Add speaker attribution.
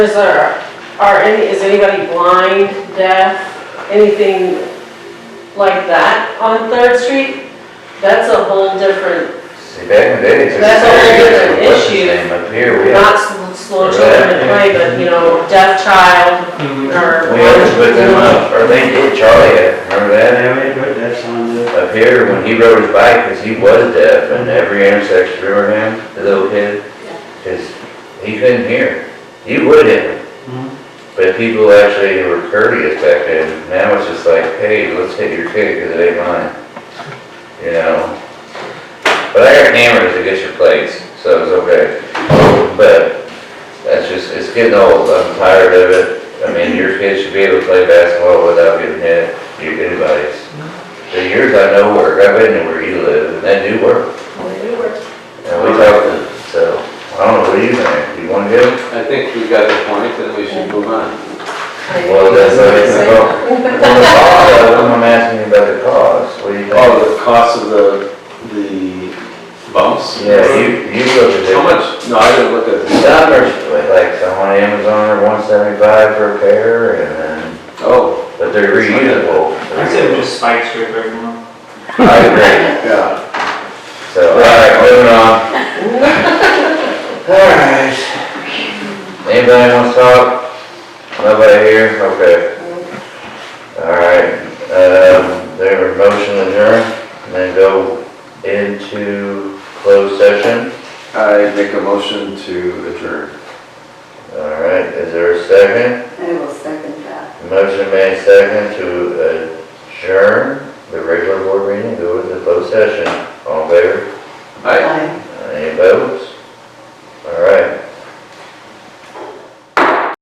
Speaker 1: Is there, are any, is anybody blind, deaf, anything like that on Third Street? That's a whole different,
Speaker 2: See, back in the day, it's just.
Speaker 1: That's a whole different
Speaker 2: what's his
Speaker 1: issue.
Speaker 2: name Up here, we had,
Speaker 1: not s- slow children to play, but, you know, deaf child or.
Speaker 2: we had to put them up, or they did, Charlie, had- remember that? uh,
Speaker 3: Yeah, we had put that sign up.
Speaker 2: Up here, when he rode his bike, because he was deaf, and every intersection, remember him, the little kid? Because he couldn't hear, he would hit
Speaker 3: Mhm.
Speaker 2: him. But people actually were courteous back then, now it's just like, hey, let's hit your kid, because it ain't mine, you know? But I got hammers against your plates, so it's okay. But that's just, it's getting old, I'm tired of it. I mean, your kids should be able to play basketball without getting hit, you, anybody's. The years I know work, I've been to where you live, and that do work. And we talked to, so, I don't know, what do you think? You wanna go?
Speaker 4: I think we got the point, and we should move on.
Speaker 2: Well, that's what it's about. Well, the cause, I'm asking you about the cause, what do you think?
Speaker 4: Oh, the cost of the, the bumps?
Speaker 2: Yeah, you, you look at it.
Speaker 4: How much? No, I didn't look at the,
Speaker 2: Dollars, like, so on Amazon are one seventy-five for a pair, and then
Speaker 4: oh,
Speaker 2: But they're reusable.
Speaker 3: I said we just spike strip everyone.
Speaker 2: I agree.
Speaker 4: yeah.
Speaker 2: So, all right, moving on. All right. Anybody wants to talk? Nobody here? Okay. All right, um, there were motion adjourned, and then go into closed session.
Speaker 4: I make a motion to adjourn.
Speaker 2: All right, is there a second?
Speaker 5: I will second that.
Speaker 2: Motion made second to adjourn the regular board meeting, go into closed session. All in favor?
Speaker 4: Aye.
Speaker 5: Aye.